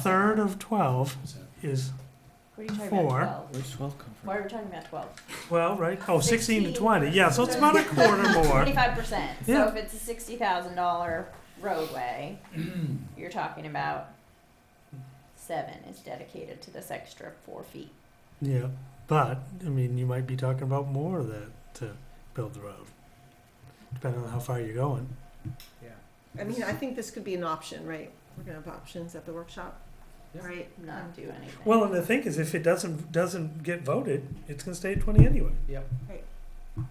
third of twelve is What are you talking Four. about? 12? Where's twelve come Why are we talking about 12? twelve, right? Oh, sixteen to 16. twenty, yeah, so it's about a quarter more. 25%. Yeah. So if it's a $60,000 roadway, you're talking about seven is dedicated to this extra four feet. Yeah, but, I mean, you might be talking about more of that to build the road, depending on how far you're going. I mean, I think this could be an option, right? We're gonna have options at the workshop, Yeah. right? Um, Not do anything. Well, and the thing is, if it doesn't, doesn't get voted, it's gonna stay at twenty anyway.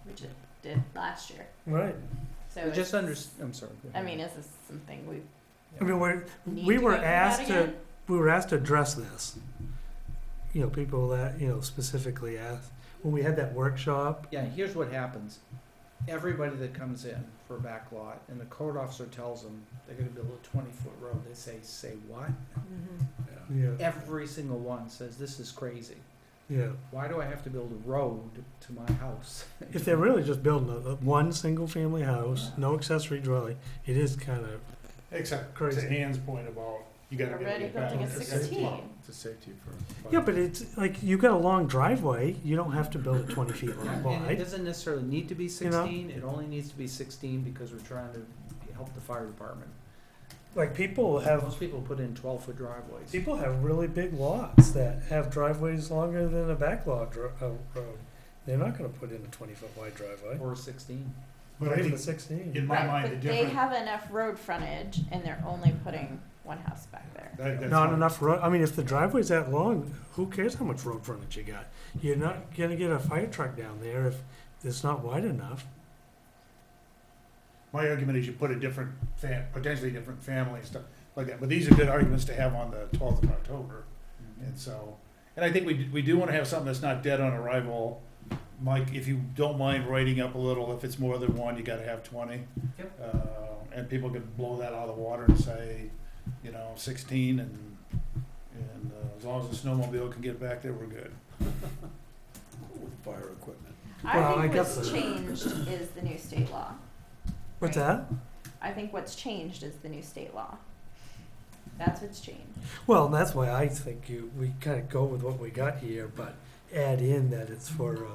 which it did last year. Right. So We just it's- under, I'm sorry. go I ahead. mean, this is something we I mean, we're, need we to were go through that asked to, again? we were asked to address this. You know, people that, you know, specifically asked, when we had that workshop, Yeah, here's what happens. Everybody that comes in for a back lot and the code officer tells them they're gonna build a twenty-foot road, they say, say what? yeah, Every single one says, this is crazy. yeah. Why do I have to build a road to my house? If they're really just building a, a one single family house, no accessory dwelling, it is kind of Except to crazy. Anne's point about, you gotta get Already it back. building a It's a safety. sixteen. It's a safety for. Yeah, but it's like you got a long driveway. You don't have to build it 20 feet long Yeah, And it wide. doesn't necessarily need to be You know? sixteen, it only needs to be sixteen because we're trying to help the fire department. Like people have Most people put in twelve-foot driveways. people have really big lots that have driveways longer than a backlog dr- uh, road. They're not going to put in a 20 foot wide driveway. Or sixteen. But I Even think, 16. in my Right, mind, the but they difference. have enough road frontage and they're only putting one house back there. not enough road. I mean, if the driveway's that long, who cares how much road frontage you got? You're not going to get a fire truck down there if it's not wide enough. My argument is you put a different, fa- potentially different family and stuff like that, but these are good arguments to have on the twelfth of October. And so, and I think we, d- we do wanna have something that's not dead on arrival. Mike, if you don't mind writing up a little, if it's more than one, you gotta have twenty. Yep. Uh, and people can blow that out of the water and say, you know, sixteen and, and uh, as long as the snowmobile can get back there, we're good. With fire equipment. Well, I I think guess what's so. changed is the new state law. What's Right. that? I think what's changed is the new state law. That's what's changed. Well, and that's why I think you, we kind of go with what we got here, but add in that it's for a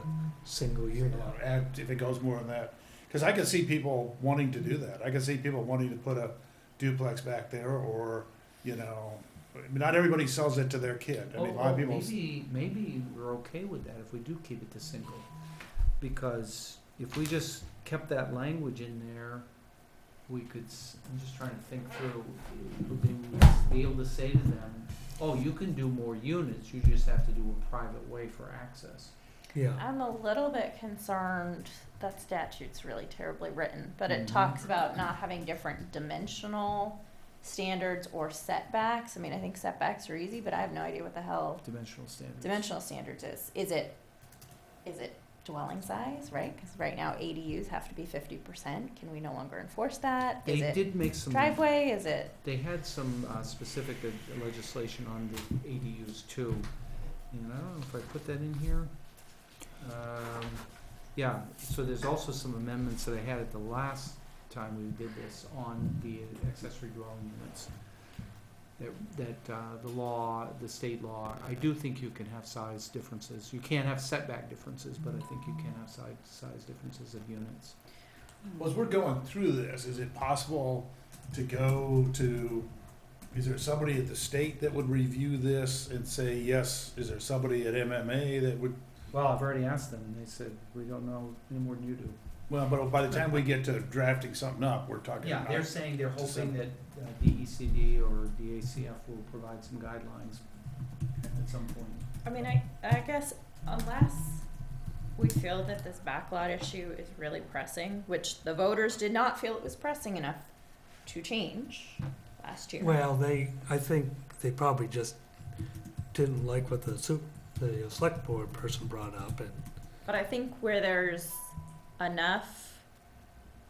single unit. Uh, add, if it goes more than that, because I can see people wanting to do that. I can see people wanting to put a duplex back there, or you know, I mean, not everybody sells it to their kid. I Oh, mean, a lot oh, of people. Maybe, maybe we're okay with that if we do keep it to single, because if we just kept that language in there, we could, s- I'm just trying to think through, would they be able to say to them, oh, you can do more units, you just have to do a private way for access. Yeah, I'm a little bit concerned, that statute's really terribly written, but it Mm-hmm. Mhm. talks about not having different dimensional standards or setbacks. I mean, I think setbacks are easy, but I have no idea what the hell Dimensional standards. dimensional standards is. Is it, is it dwelling size, right? Because right now ADUs have to be fifty percent. Can we no longer enforce that? Is They it did make some, driveway? Is it? they had some uh, specific uh, legislation on the ADUs too, and I don't know if I put that in here. Um, yeah, so there's also some amendments that I had at the last time we did this on the accessory dwelling units. That, that, uh, the law, the state law, I do think you can have size differences, you can't have setback differences, but I think you can have size, size differences of units. Well, as we're going through this, is it possible to go to? Is there somebody at the state that would review this and say yes? Is there somebody at MMA that would? Well, I've already asked them, and they said, we don't know any more than you do. Well, but by the time we get to drafting something up, we're talking. Yeah, about- they're saying they're Just hoping that some- uh, DECD or DACF will provide some guidelines at some point. I mean, I, I guess unless we feel that this backlot issue is really pressing, which the voters did not feel it was pressing enough to change last year. well, they, I think they probably just didn't like what the su- the select board person brought up and, But I think where there's enough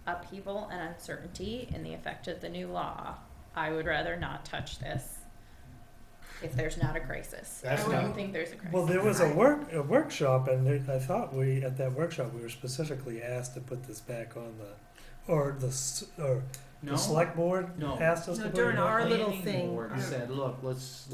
upheaval and uncertainty in the effect of the new law, I would rather not touch this if there's not a crisis. That's I don't not- think there's a crisis. well, there was a work, a workshop and there- I thought we, at that workshop, we were specifically asked to put this back on the, or the, s- or the No, select board No. asked us to No, put it during back our on. little Planning thing, board our- said, look, let's,